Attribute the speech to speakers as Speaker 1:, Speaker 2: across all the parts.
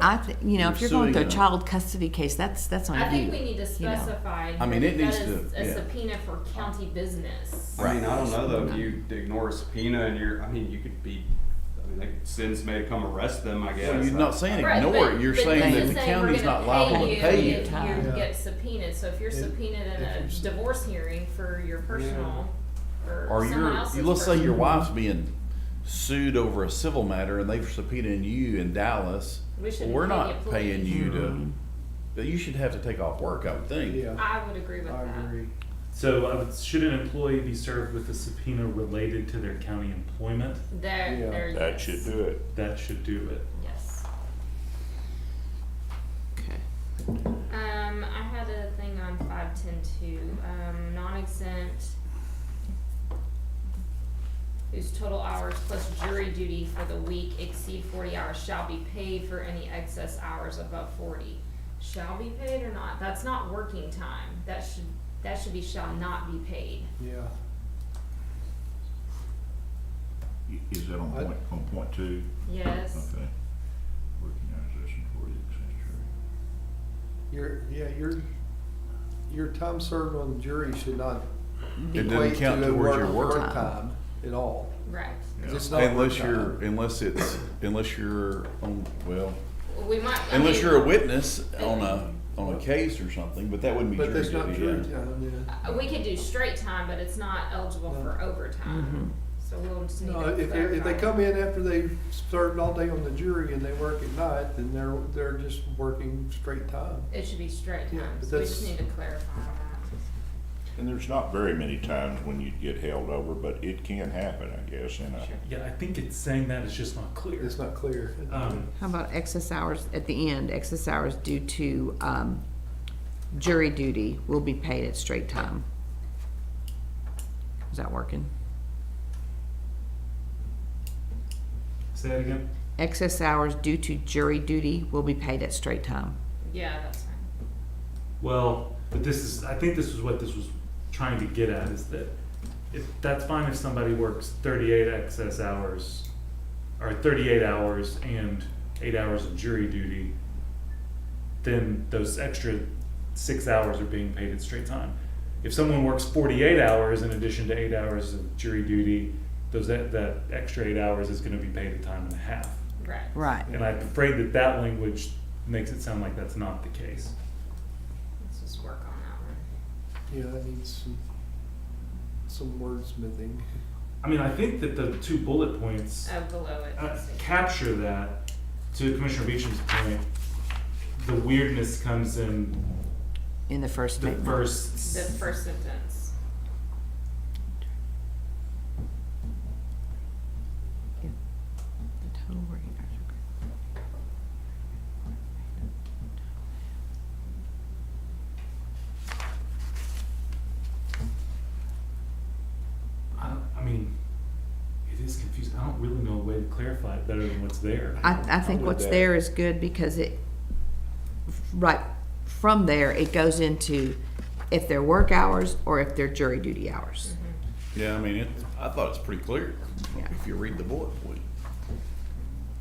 Speaker 1: I, th- you know, if you're going through a
Speaker 2: suing a-
Speaker 1: child custody case, that's, that's on you.
Speaker 3: I think we need to
Speaker 1: you know.
Speaker 3: specify
Speaker 2: I mean, it
Speaker 3: that
Speaker 2: needs
Speaker 3: is
Speaker 2: to-
Speaker 3: a
Speaker 2: yeah.
Speaker 3: subpoena for county business.
Speaker 4: I mean, I don't know though, if you ignore a subpoena and you're, I mean, you could be, I mean, they could send somebody to come arrest them, I guess.
Speaker 2: Well, you're not saying
Speaker 3: Right,
Speaker 2: ignore
Speaker 3: but-
Speaker 2: it, you're
Speaker 3: but
Speaker 2: saying
Speaker 3: this
Speaker 2: that
Speaker 3: is
Speaker 2: the
Speaker 3: saying we're
Speaker 2: county's
Speaker 3: gonna
Speaker 2: not liable to pay you.
Speaker 3: if
Speaker 1: time.
Speaker 3: You
Speaker 5: Yeah.
Speaker 3: get subpoenaed, so if you're
Speaker 5: If-
Speaker 3: subpoenaed in
Speaker 5: if
Speaker 3: a
Speaker 5: you're sub-
Speaker 3: divorce hearing for your personal
Speaker 2: Or
Speaker 3: or someone
Speaker 2: your,
Speaker 3: else's.
Speaker 2: let's say your
Speaker 3: personal-
Speaker 2: wife's being sued over a civil matter and they've subpoenaed you in Dallas.
Speaker 3: We shouldn't
Speaker 2: We're
Speaker 3: pay
Speaker 2: not
Speaker 3: the
Speaker 2: paying
Speaker 3: police.
Speaker 2: you to, but you should have to take off work, I would think.
Speaker 5: Hmm. Yeah,
Speaker 3: I would agree with
Speaker 5: I
Speaker 3: that.
Speaker 5: agree.
Speaker 6: So, I would- should an employee be served with a subpoena related to their county employment?
Speaker 3: There,
Speaker 5: Yeah.
Speaker 3: there.
Speaker 7: That
Speaker 3: yes.
Speaker 7: should do it.
Speaker 6: That should do it.
Speaker 3: Yes.
Speaker 1: Okay.
Speaker 3: Um, I had a thing on five ten two, um, non-exempt whose total hours plus jury duty for the week exceed forty hours shall be paid for any excess hours above forty. Shall be paid or not, that's not working time, that should, that should be shall not be paid.
Speaker 5: Yeah,
Speaker 8: Is that on
Speaker 5: I-
Speaker 8: point, on point two?
Speaker 3: Yes,
Speaker 8: Okay. Working hours less than forty accessory.
Speaker 5: your, yeah, your, your time served on the jury should not
Speaker 2: It
Speaker 5: equate
Speaker 2: doesn't
Speaker 5: to
Speaker 2: count
Speaker 5: a
Speaker 2: towards your
Speaker 5: work,
Speaker 2: work.
Speaker 5: work time at all.
Speaker 3: right,
Speaker 5: 'cause
Speaker 8: Yeah.
Speaker 5: it's not work
Speaker 2: Unless you're,
Speaker 5: time.
Speaker 2: unless it's, unless you're on, well,
Speaker 3: we might. I
Speaker 2: unless
Speaker 3: mean,
Speaker 2: you're a witness on a, on a case or something, but that wouldn't be
Speaker 5: But
Speaker 2: jury
Speaker 5: that's
Speaker 2: duty.
Speaker 5: not
Speaker 2: yeah.
Speaker 5: jury time, yeah.
Speaker 3: uh, We could do straight time, but it's not eligible for overtime, so we'll just need to
Speaker 5: No,
Speaker 3: clarify.
Speaker 5: if, they- if they come in after they've served all day on the jury and they work at night, then they're, they're just working straight time.
Speaker 3: It should be straight
Speaker 5: Yeah,
Speaker 3: times,
Speaker 5: but
Speaker 3: we just
Speaker 5: that's-
Speaker 3: need to clarify that.
Speaker 7: And there's not very many times when you'd get held over, but it can happen, I guess, and I,
Speaker 6: Yeah, I think it's saying that it's just not clear.
Speaker 5: It's not clear.
Speaker 6: Um,
Speaker 1: How about excess hours at the end, excess hours due to, um, jury duty will be paid at straight time? Is that working?
Speaker 6: say that again?
Speaker 1: Excess hours due to jury duty will be paid at straight time.
Speaker 3: Yeah, that's fine.
Speaker 6: Well, but this is, I think this is what this was trying to get at, is that if, that's fine if somebody works thirty-eight excess hours, or thirty-eight hours and eight hours of jury duty, then those extra six hours are being paid at straight time. If someone works forty-eight hours in addition to eight hours of jury duty, those, that, that extra eight hours is gonna be paid at time and a half.
Speaker 3: Right.
Speaker 1: Right.
Speaker 6: And I'm afraid that that language makes it sound like that's not the case.
Speaker 3: Let's just work on that one.
Speaker 5: Yeah, that needs some, some wordsmithing.
Speaker 6: I mean, I think that the two bullet points
Speaker 3: Oh, below it.
Speaker 6: uh,
Speaker 3: let's see.
Speaker 6: capture that. To Commissioner Beecham's point, the weirdness comes in
Speaker 1: In the first
Speaker 6: the
Speaker 1: statement.
Speaker 6: first.
Speaker 3: The
Speaker 6: s-
Speaker 3: first sentence.
Speaker 1: The total working hours are-
Speaker 6: I, don't- I mean, it is confusing. I don't really know a way to clarify it better than what's there.
Speaker 1: I, I think
Speaker 7: would
Speaker 1: what's
Speaker 7: bet.
Speaker 1: there is good because it, right, from there, it goes into if they're work hours or if they're jury duty hours.
Speaker 2: Yeah, I mean, it, I thought it's pretty clear,
Speaker 1: Yeah.
Speaker 2: if you read the bullet point.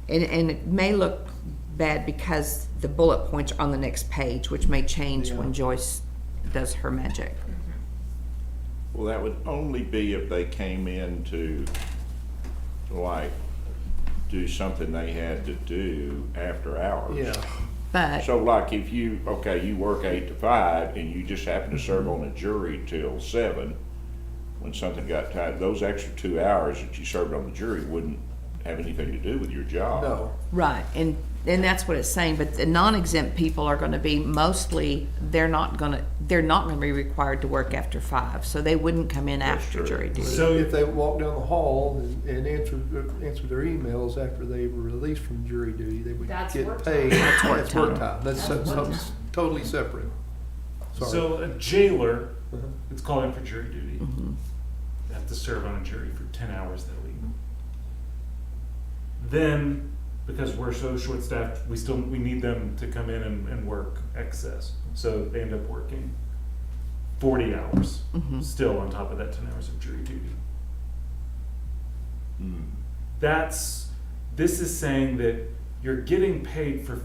Speaker 1: And, and it may look bad because the bullet points are on the next page, which may change when
Speaker 5: Yeah.
Speaker 1: Joyce does her magic.
Speaker 7: well, that would only be if they came in to, like, do something they had to do after hours.
Speaker 5: Yeah,
Speaker 1: But,
Speaker 7: So like if you, okay, you work eight to five and you just happen to serve on a jury till seven, when something got tied, those extra two hours that you served on the jury wouldn't have anything to do with your job.
Speaker 5: no,
Speaker 1: right, and, and that's what it's saying, but the non-exempt people are gonna be mostly, they're not gonna, they're not gonna be required to work after five, so they wouldn't come in
Speaker 7: That's
Speaker 1: after
Speaker 7: true.
Speaker 1: jury duty.
Speaker 6: So-
Speaker 5: if they walk down the hall and, and answer, answer their emails after they were released from jury duty, they would
Speaker 3: That's work
Speaker 5: get
Speaker 3: time.
Speaker 5: paid.
Speaker 1: That's work
Speaker 5: That's work
Speaker 1: time.
Speaker 5: time, that's
Speaker 3: That's work
Speaker 5: something totally separate. Sorry.
Speaker 6: So a jailer,
Speaker 5: Uh-huh.
Speaker 6: it's called in for jury duty.
Speaker 1: Mm-hmm.
Speaker 6: They have to serve on a jury for ten hours that week. Then, because we're so short-staffed, we still, we need them to come in and, and work excess. So they end up working forty hours, still on top of that ten hours of jury duty. That's, this is saying that you're getting paid for